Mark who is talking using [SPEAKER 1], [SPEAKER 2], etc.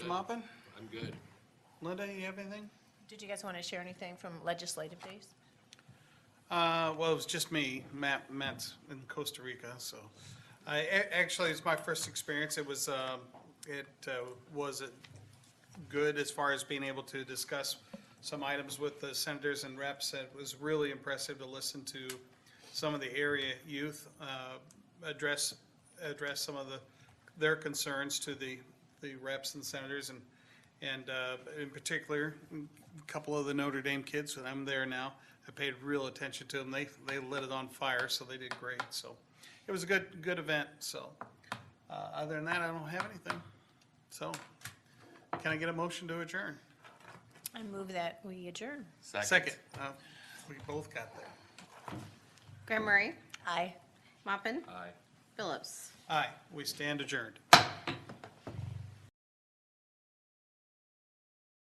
[SPEAKER 1] mopping?
[SPEAKER 2] I'm good.
[SPEAKER 1] Linda, you have anything?
[SPEAKER 3] Did you guys want to share anything from legislative days?
[SPEAKER 1] Uh, well, it was just me, Matt, Matt's in Costa Rica, so. I, a- actually, it's my first experience. It was, um, it, uh, was it good as far as being able to discuss some items with the senators and reps. It was really impressive to listen to some of the area youth, uh, address, address some of the, their concerns to the, the reps and senators and, and, uh, in particular, a couple of the Notre Dame kids, and I'm there now, I paid real attention to them. They, they lit it on fire, so they did great, so. It was a good, good event, so. Uh, other than that, I don't have anything, so. Can I get a motion to adjourn?
[SPEAKER 3] I move that we adjourn.
[SPEAKER 1] Second. Uh, We both got there.
[SPEAKER 4] Graham Murray,
[SPEAKER 3] Aye.
[SPEAKER 4] Moppin,
[SPEAKER 2] Aye.
[SPEAKER 4] Phillips.
[SPEAKER 1] Aye, we stand adjourned.